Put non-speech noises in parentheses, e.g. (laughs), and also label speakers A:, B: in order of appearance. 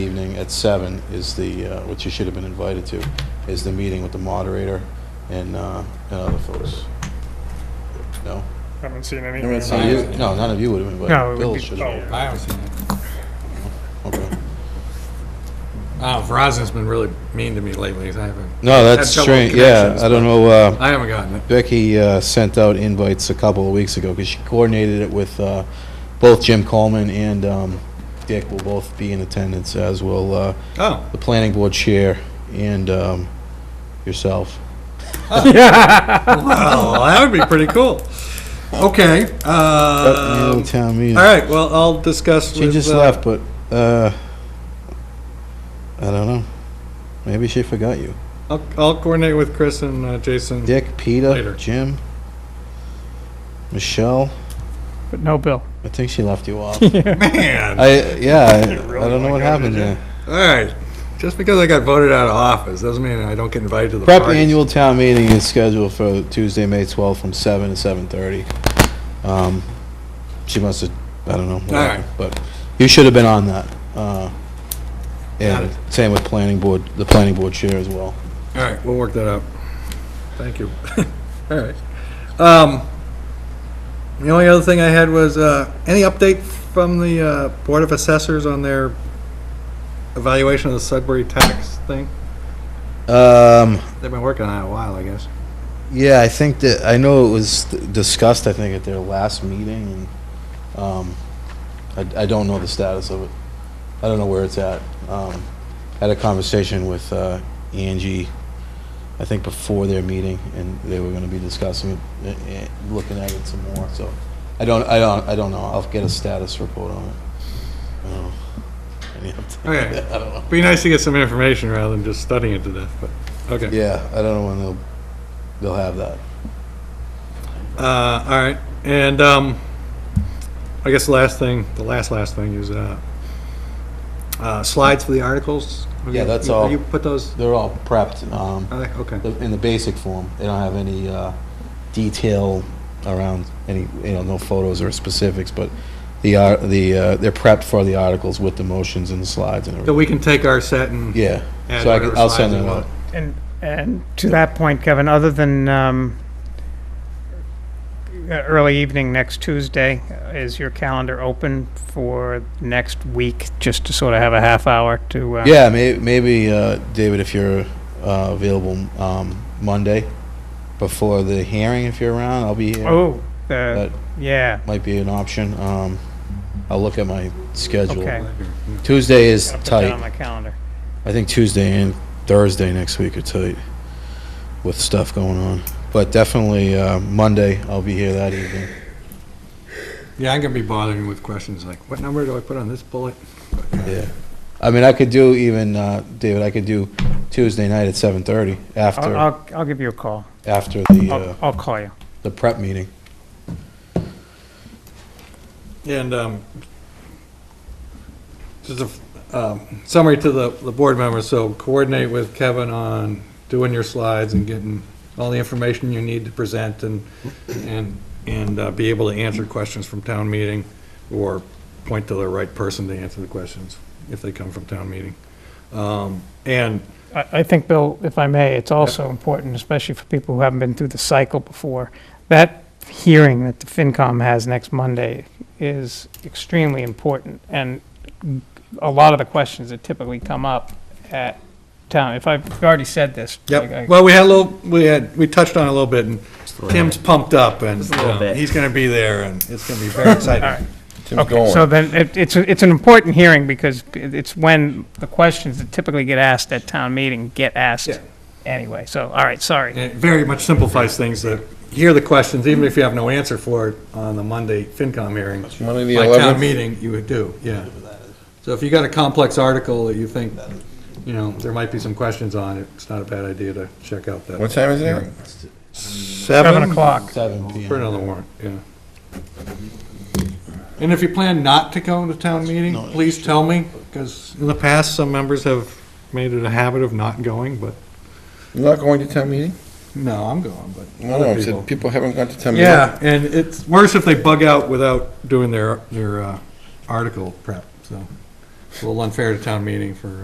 A: evening at seven is the, uh, which you should have been invited to, is the meeting with the moderator and uh, and other folks. No?
B: I haven't seen
A: No,
B: (laughs) anything.
A: you- No, none of you would have been
B: No, it
A: invited.
B: would
A: Bill
B: be-
A: should
B: oh.
A: have.
C: I haven't seen it.
A: Okay.
C: Oh, Verizon's been really mean to me lately. I haven't,
A: No, that's
C: Had trouble
A: strange,
C: with
A: yeah,
C: connections,
A: I don't know, uh,
C: I haven't gotten it.
A: Becky uh, sent out invites a couple of weeks ago, because she coordinated it with uh, both Jim Coleman and um, Dick will both be in attendance, as will uh,
C: Oh,
A: the planning board chair and um, yourself.
C: wow, that would be pretty cool. Okay,
A: Uh,
C: um,
A: town meeting.
C: all right, well, I'll discuss
A: She
C: with,
A: just
C: uh,
A: left, but uh, I don't know. Maybe she forgot you.
C: I'll, I'll coordinate with Chris and uh, Jason.
A: Dick, Peter,
C: Later.
A: Jim, Michelle.
B: But no bill.
A: I think she left you
C: (laughs)
A: off.
C: Man,
A: I yeah. I,
B: really
A: I don't know
B: wanna
A: what
B: go,
A: happened
B: did you?
A: there.
C: all right, just because I got voted out of office doesn't mean I don't get invited to the
A: Prep
C: parties.
A: annual town meeting is scheduled for Tuesday, May twelfth, from seven to seven thirty. Um, she must have. I don't know. what
C: All right.
A: happened, But you should have been on that. Uh,
C: Got
A: and same with planning board, the planning board chair as well.
C: All right, we'll work that out. Thank you. (laughs) All right. Um, The only other thing I had was, uh, any update from the uh, Board of Assessors on their evaluation of the Sudbury tax thing?
A: Um,
C: They've been working on it a while, I guess.
A: Yeah, I think that, I know it was discussed, I think, at their last meeting, and, um, I, I don't know the status of it. I don't know where it's at. Um, had a conversation with, uh, Angie, I think before their meeting, and they were gonna be discussing it, eh, eh, looking at it some more, so. I don't, I don't, I don't know. I'll get a status report on it. I don't know. Any update?
C: Okay.
A: (laughs) I don't know.
C: Be nice to get some information rather than just studying it to death, but, okay.
A: Yeah, I don't know when they'll, they'll have that.
C: Uh, all right, and, um, I guess the last thing, the last, last thing is, uh, uh, slides for the articles?
A: Yeah, that's
C: You-
A: all.
C: You put those,
A: They're all prepped, um,
C: uh, okay.
A: the- in the basic form. They don't have any uh, detail around any, you know, no photos or specifics, but the, ar- the, uh, they're prepped for the articles with the motions and the slides and
C: So
A: everything.
C: we can take our set and.
A: Yeah,
C: add
A: so I
C: whatever
A: can, I'll
C: slides
A: send
C: we
A: it
C: want.
A: out.
B: (laughs) And, and to that point, Kevin, other than, um, uh, early evening next Tuesday, uh, is your calendar open for next week, just to sort of have a half hour to, uh?
A: Yeah, may, maybe, uh, David, if you're uh, available um, Monday before the hearing, if you're around, I'll be here.
B: Oh, the,
A: That
B: yeah,
A: might be an option. Um, I'll look at my
B: Okay.
A: schedule. Tuesday is
B: I'll put that on
A: tight.
B: my calendar.
A: I think Tuesday and Thursday next week are tight with stuff going on. But definitely uh, Monday, I'll be here that evening.
C: Yeah, I'm gonna be bothering with questions like, what number do I put on this bullet?
A: Yeah. I mean, I could do even, uh, David, I could do Tuesday night at 7:30
B: I'll,
A: after,
B: I'll, I'll give you a call.
A: after the, uh,
B: I'll, I'll call you.
A: the prep meeting.
C: And, um, just a, um, summary to the, the board members, so coordinate with Kevin on doing your slides and getting all the information you need to present and, and, and uh, be able to answer questions from town meeting or point to the right person to answer the questions if they come from town meeting. Um, and
B: I I think, Bill, if I may, it's also important, especially for people who haven't been through the cycle before, that hearing that the FinCom has next Monday is extremely important, and a lot of the questions that typically come up at town, if I've already said this. I- I-
C: Yep, well, we had a little, we had, we touched on it a little bit, and Tim's pumped up, and um, he's gonna be there, and it's gonna be very exciting.
B: Okay, so then, it- it's, a- it's an important hearing, because it- it's when the questions that typically get asked at town meeting get
C: Yeah.
B: asked anyway, so, all right, sorry.
C: And it very much simplifies things, to hear the questions, even if you have no answer for it on the Monday FinCom hearing.
D: Monday the
C: By town
D: 11th,
C: meeting, you would do, yeah. So if you got a complex article that you think, you know, there might be some questions on, it's not a bad idea to check out that.
D: what time is it?
B: Seven o'clock.
A: Seven
C: For
A: PM.
C: another warrant, yeah. And if you plan not to go to town meeting,
A: No, it's
C: please tell me, because in the past, some members have made it a habit of not going, but,
D: You're not going to town meeting?
C: no, I'm going, but
D: No, no,
C: other
D: I
C: people.
D: said people haven't gone to town meeting.
C: Yeah, and it's worse if they bug out without doing their, their uh, article prep, so. It's a little unfair to town meeting for